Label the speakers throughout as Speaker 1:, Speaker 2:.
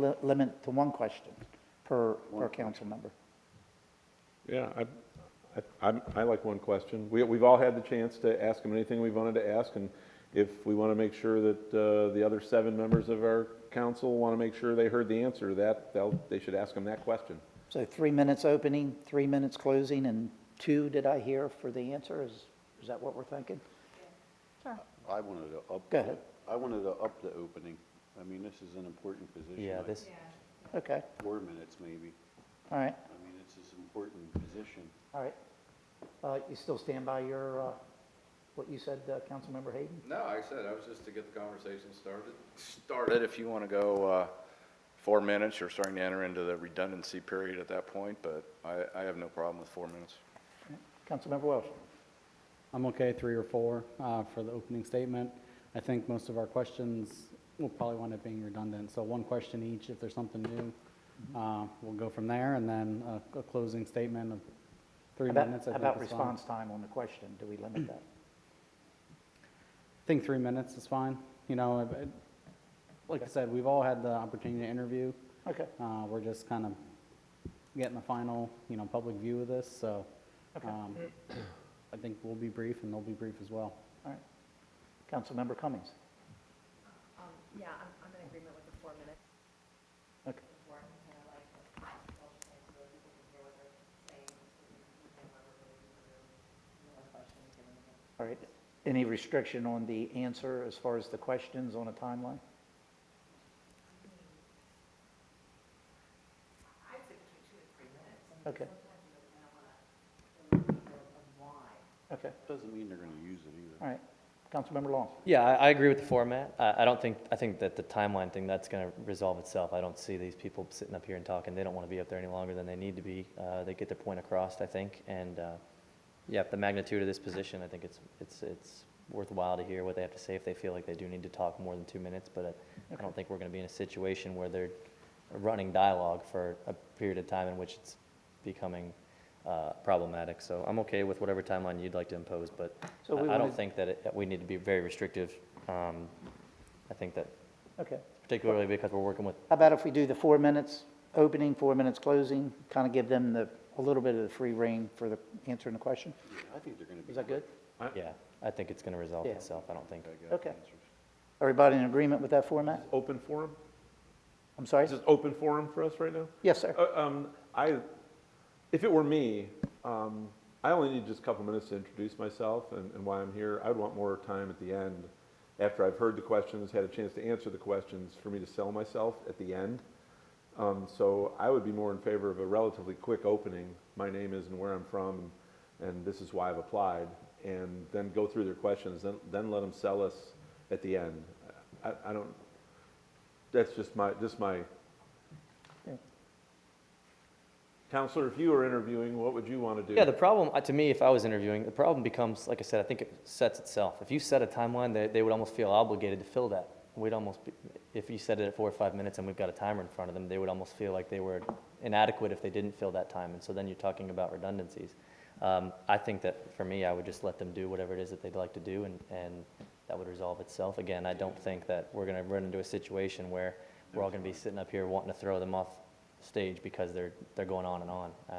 Speaker 1: li- limit to one question per, per council member.
Speaker 2: Yeah, I- I, I'm- I like one question. We, we've all had the chance to ask them anything we wanted to ask, and if we want to make sure that uh, the other seven members of our council want to make sure they heard the answer to that, they'll, they should ask them that question.
Speaker 1: So three minutes opening, three minutes closing, and two, did I hear, for the answer? Is, is that what we're thinking?
Speaker 3: I wanted to up.
Speaker 1: Go ahead.
Speaker 3: I wanted to up the opening. I mean, this is an important position.
Speaker 4: Yeah,
Speaker 3: like
Speaker 4: this,
Speaker 1: Okay,
Speaker 3: Four minutes maybe.
Speaker 1: all right,
Speaker 3: I mean, it's an important position.
Speaker 1: all right. Uh, You still stand by your, uh, what you said, uh, Councilmember Hayden?
Speaker 5: No, like I said, I was just to get the conversation started. Started, if you want to go uh, four minutes, you're starting to enter into the redundancy period at that point, but I, I have no problem with four minutes.
Speaker 1: Councilmember Welsh?
Speaker 6: I'm okay, three or four, uh, for the opening statement. I think most of our questions will probably wind up being redundant, so one question each, if there's something new, uh, we'll go from there, and then a, a closing statement of three
Speaker 1: About-
Speaker 6: minutes, I think
Speaker 1: About
Speaker 6: is fine.
Speaker 1: response time on the question, do we limit that?
Speaker 6: I think three minutes is fine, you know, I- I- like I said, we've all had the opportunity to interview,
Speaker 1: Okay,
Speaker 6: uh, we're just kind of getting the final, you know, public view of this, so, um, I think we'll be brief, and they'll be brief as well.
Speaker 1: all right. Councilmember Cummings?
Speaker 7: Um, yeah, I'm, I'm in agreement with the four minutes
Speaker 1: Okay,
Speaker 7: before, I kind of like, the consultation, so that people can hear what they're saying, so we can hear what we're doing, so there's more questions given to them.
Speaker 1: all right. Any restriction on the answer as far as the questions on a timeline?
Speaker 7: I'd say between two and three minutes. I mean,
Speaker 1: Okay.
Speaker 7: Sometimes you don't know what, of why.
Speaker 1: Okay,
Speaker 3: Doesn't mean they're going to use it
Speaker 1: all
Speaker 3: either.
Speaker 1: right. Councilmember Long?
Speaker 4: yeah, I, I agree with the format. I, I don't think, I think that the timeline thing, that's going to resolve itself. I don't see these people sitting up here and talking. They don't want to be up there any longer than they need to be. Uh, they get their point across, I think, and, uh, yeah, the magnitude of this position, I think it's, it's, it's worthwhile to hear what they have to say if they feel like they do need to talk more than two minutes, but uh, I, I don't think we're going to be in a situation where they're running dialogue for a period of time in which it's becoming, uh, problematic. So I'm okay with whatever timeline you'd like to impose, but
Speaker 1: So we
Speaker 4: I- I don't
Speaker 1: wanted-
Speaker 4: think that it- that we need to be very restrictive. Um, I think that,
Speaker 1: Okay.
Speaker 4: particularly because we're working with,
Speaker 1: How about if we do the four minutes opening, four minutes closing, kind of give them the, a little bit of the free rein for the answering the question?
Speaker 3: Yeah, I think they're going to be.
Speaker 1: Is that good?
Speaker 4: yeah, I think it's going to resolve
Speaker 1: Yeah.
Speaker 4: itself. I don't think.
Speaker 1: Okay. Everybody in agreement with that format?
Speaker 2: Open forum?
Speaker 1: I'm sorry?
Speaker 2: Is this open forum for us right now?
Speaker 1: Yes, sir.
Speaker 2: Uh, um, I, if it were me, um, I only need just a couple minutes to introduce myself and, and why I'm here. I'd want more time at the end, after I've heard the questions, had a chance to answer the questions, for me to sell myself at the end. Um, so I would be more in favor of a relatively quick opening. My name is and where I'm from, and this is why I've applied, and then go through their questions, then, then let them sell us at the end. I, I don't. That's just my just my Counselor, if you were interviewing, what would you want to do?
Speaker 4: Yeah, the problem, uh, to me, if I was interviewing, the problem becomes, like I said, I think it sets itself. If you set a timeline, they, they would almost feel obligated to fill that. We'd almost, be- if you set it at four or five minutes and we've got a timer in front of them, they would almost feel like they were inadequate if they didn't fill that time. And so then you're talking about redundancies. Um, I think that for me, I would just let them do whatever it is that they'd like to do and, and that would resolve itself. Again, I don't think that we're going to run into a situation where we're all going to be sitting up here wanting to throw them off stage because they're, they're going on and on. Um,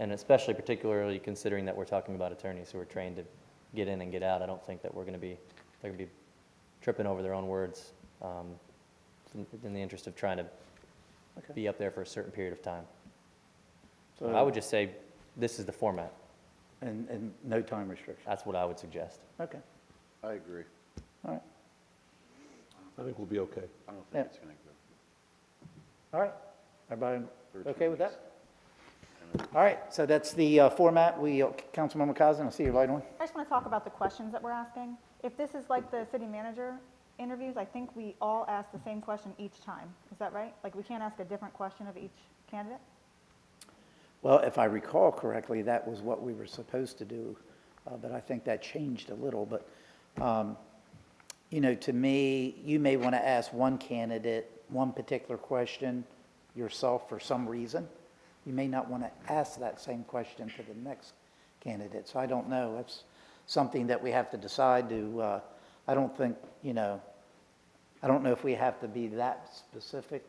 Speaker 4: and especially particularly considering that we're talking about attorneys who are trained to get in and get out, I don't think that we're going to be, they're going to be tripping over their own words um, in in the interest of trying to
Speaker 1: Okay.
Speaker 4: be up there for a certain period of time.
Speaker 1: So-
Speaker 4: I would just say, this is the format.
Speaker 1: And, and no time restriction.
Speaker 4: That's what I would suggest.
Speaker 1: Okay,
Speaker 3: I agree.
Speaker 1: all right,
Speaker 2: I think we'll be okay.
Speaker 3: I don't
Speaker 1: Yeah.
Speaker 3: think it's going to go.
Speaker 1: all right. Everybody
Speaker 3: Thirteen
Speaker 1: okay with that?
Speaker 3: minutes.
Speaker 1: All right, so that's the uh, format. We, uh, Councilmember Cosner, I see your light on.
Speaker 8: I just want to talk about the questions that we're asking. If this is like the city manager interviews, I think we all ask the same question each time. Is that right? Like, we can't ask a different question of each candidate?
Speaker 1: Well, if I recall correctly, that was what we were supposed to do, uh, but I think that changed a little. But, um, you know, to me, you may want to ask one candidate one particular question yourself for some reason. You may not want to ask that same question to the next candidate. So I don't know. That's something that we have to decide to, uh, I don't think, you know, I don't know if we have to be that specific